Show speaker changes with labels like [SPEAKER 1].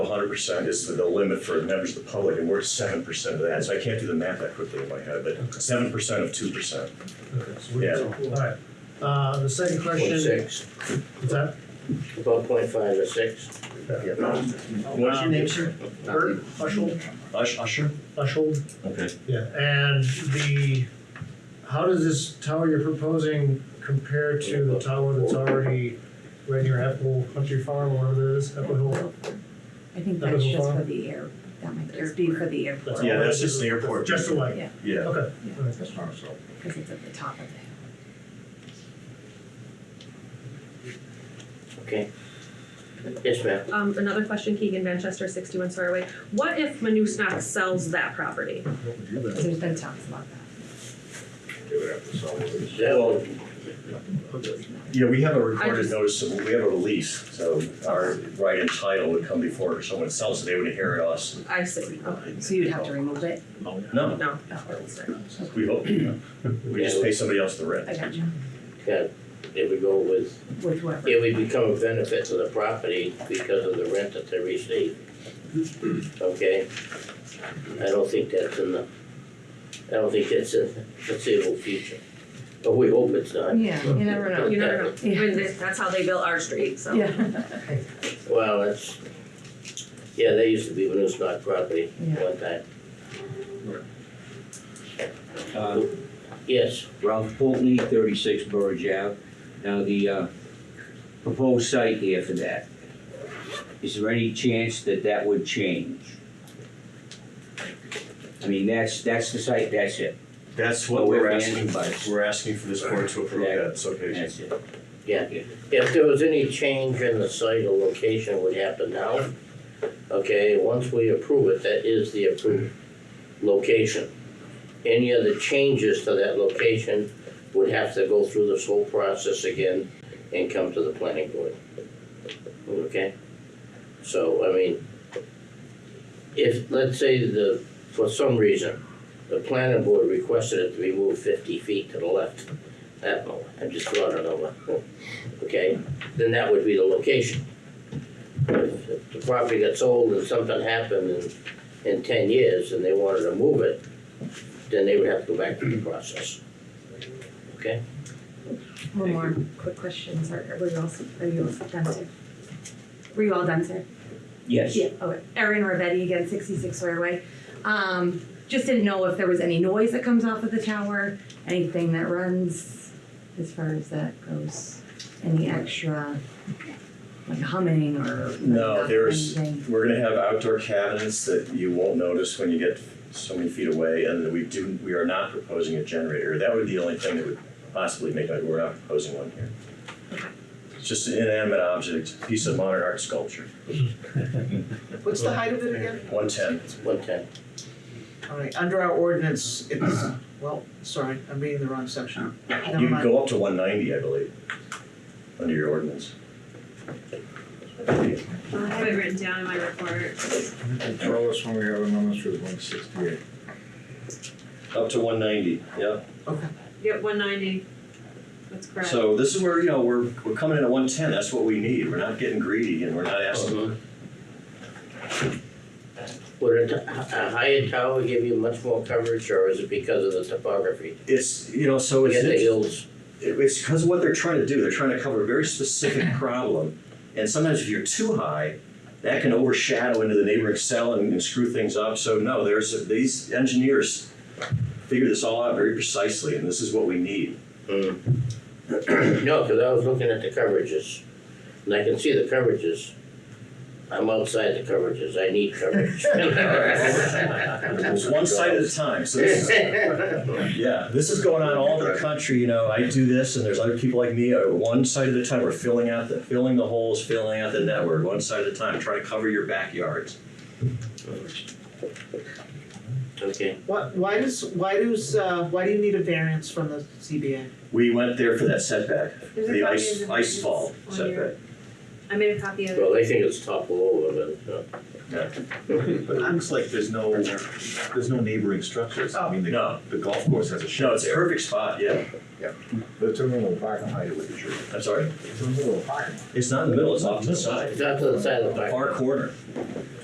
[SPEAKER 1] hundred percent is the limit for members of the public, and we're at seven percent of that, so I can't do the math that quickly in my head, but seven percent of two percent.
[SPEAKER 2] Okay, so we-
[SPEAKER 1] Yeah.
[SPEAKER 2] All right, uh, the second question,
[SPEAKER 3] Point
[SPEAKER 2] is
[SPEAKER 3] six,
[SPEAKER 2] that,
[SPEAKER 3] about point five or six.
[SPEAKER 1] What's your name, sir?
[SPEAKER 2] uh, Bert, Ushold,
[SPEAKER 1] Ush, Usher?
[SPEAKER 2] Ushold,
[SPEAKER 1] Okay.
[SPEAKER 2] yeah, and the, how does this tower you're proposing compare to the tower that's already right near Apple Country Farm, or whatever it is, Apple Hill?
[SPEAKER 4] I think
[SPEAKER 2] That
[SPEAKER 4] that's
[SPEAKER 2] was
[SPEAKER 4] just
[SPEAKER 2] fine.
[SPEAKER 4] for the air, that might just be for the airport.
[SPEAKER 1] Yeah, that's just the airport.
[SPEAKER 2] Just the light,
[SPEAKER 1] Yeah.
[SPEAKER 2] okay,
[SPEAKER 4] Yeah.
[SPEAKER 2] all right.
[SPEAKER 4] Because it's at the top of the hill.
[SPEAKER 3] Okay. Yes, ma'am.
[SPEAKER 5] Um, another question, Keegan Manchester, sixty-one Sawyerway. What if Manustock sells that property?
[SPEAKER 4] There's been talks about that.
[SPEAKER 3] Is that
[SPEAKER 1] Well,
[SPEAKER 3] what-
[SPEAKER 1] Yeah, we have a
[SPEAKER 5] I
[SPEAKER 1] recorded
[SPEAKER 5] just-
[SPEAKER 1] notice, of we have a release, so our right and title would come before someone sells it, they would inherit us.
[SPEAKER 5] I see, okay,
[SPEAKER 4] So you'd have to remove it?
[SPEAKER 1] No,
[SPEAKER 5] no.
[SPEAKER 1] we hope, we just pay somebody else the
[SPEAKER 4] I
[SPEAKER 1] rent.
[SPEAKER 4] got you.
[SPEAKER 3] yeah, there we go with,
[SPEAKER 4] With whoever.
[SPEAKER 3] it would become a benefit to the property because of the rent that they receive. Okay? I don't think that's in the, I don't think that's in the foreseeable future, but we hope it's not.
[SPEAKER 4] Yeah, you never know.
[SPEAKER 5] You never know, Even this- that's how they built our street, so.
[SPEAKER 4] Yeah.
[SPEAKER 3] Well, that's, yeah, they used to be Manustock property
[SPEAKER 4] Yeah.
[SPEAKER 3] one time.
[SPEAKER 6] Uh,
[SPEAKER 3] Yes,
[SPEAKER 6] Ralph Pulteney, thirty-six Burridge Ave. Now, the, uh, proposed site here for that, is there any chance that that would change? I mean, that's, that's the site, that's it,
[SPEAKER 1] That's
[SPEAKER 6] Oh,
[SPEAKER 1] what
[SPEAKER 6] we're
[SPEAKER 1] we're
[SPEAKER 6] banning
[SPEAKER 1] asking,
[SPEAKER 6] bikes.
[SPEAKER 1] we're asking for this board to approve that, it's okay.
[SPEAKER 6] that's it.
[SPEAKER 3] if there was any change in the site or location it would happen now. Okay, once we approve it, that is the approved location. Any other changes to that location would have to go through this whole process again and come to the planning board. Okay? So, I mean, if, let's say the, for some reason, the planning board requested it to be moved fifty feet to the left, that, I'm just throwing it over, okay? Then that would be the location. If if the property got sold and something happened in, in ten years and they wanted to move it, then they would have to go back through the process. Okay?
[SPEAKER 4] One more quick question, sir. Are we all, are you all done, sir? Were you all done, sir?
[SPEAKER 6] Yes,
[SPEAKER 4] Yeah, okay. Erin Ravetti again, sixty-six Sawyer Way. Um, just didn't know if there was any noise that comes off of the tower, anything that runs as far as that goes. Any extra, like humming or
[SPEAKER 1] No, there's,
[SPEAKER 4] anything?
[SPEAKER 1] we're gonna have outdoor cabins that you won't notice when you get so many feet away, and we do, we are not proposing a generator, that would be the only thing that would possibly make, it. we're not proposing one here. It's just an inanimate object, piece of modern art sculpture,
[SPEAKER 7] What's the height of it again?
[SPEAKER 1] one ten.
[SPEAKER 3] One time.
[SPEAKER 7] Alright, under our ordinance, it's, well, sorry, I'm reading the wrong section. Never
[SPEAKER 1] You can
[SPEAKER 7] mind.
[SPEAKER 1] go up to one ninety, I believe, under your ordinance.
[SPEAKER 8] I have it written down in my report.
[SPEAKER 9] Tell us when we have an ordinance for one sixty-eight.
[SPEAKER 1] Up to one ninety, yeah.
[SPEAKER 8] Yep, one ninety. That's correct.
[SPEAKER 1] So this is where, you know, we're, we're coming in at one ten, that's what we need, we're not getting greedy and we're not asking.
[SPEAKER 3] Would a, t- a higher tower give you much more coverage, or is it because of the topography?
[SPEAKER 1] It's, you know, so
[SPEAKER 3] We
[SPEAKER 1] Oh, it's.
[SPEAKER 3] got the hills,
[SPEAKER 1] It- It's because what they're trying to do, they're trying to cover a very specific problem. And sometimes if you're too high, that can overshadow into the neighboring cell and, and screw things up. So no, there's these engineers figure this all out very precisely, and this is what we need.
[SPEAKER 3] no, cause I was looking at the coverages, and I can see the coverages. I'm outside the coverages, I need coverage.
[SPEAKER 1] It's one site at a time. So this is, yeah, this is going on all over the country. You know, I do this, and there's other people like me. uh, One site at a time, we're filling out the filling the holes, filling out the network, one site at a time, trying to cover your backyards.
[SPEAKER 3] Okay,
[SPEAKER 7] What, why does, why does, uh, why do you need a variance from the CBA?
[SPEAKER 1] We went there for that setback,
[SPEAKER 8] There's a
[SPEAKER 1] the
[SPEAKER 8] copy
[SPEAKER 1] ice,
[SPEAKER 8] of the
[SPEAKER 1] ice fall
[SPEAKER 8] minutes on your-
[SPEAKER 1] setback.
[SPEAKER 8] I made a copy of it.
[SPEAKER 3] well, they think it's topple over, but, uh,
[SPEAKER 10] But it looks like there's no, there's no neighboring structures, I mean, the,
[SPEAKER 1] No.
[SPEAKER 10] the golf course has a shed
[SPEAKER 1] No, it's a
[SPEAKER 10] there.
[SPEAKER 1] perfect spot, yeah,
[SPEAKER 9] It's in the middle of the parking lot.
[SPEAKER 1] I'm sorry,
[SPEAKER 9] It's in the middle of the parking lot.
[SPEAKER 1] it's not in the middle, it's off to the side,
[SPEAKER 3] it's out to the side of the
[SPEAKER 1] the
[SPEAKER 3] park.
[SPEAKER 1] far corner.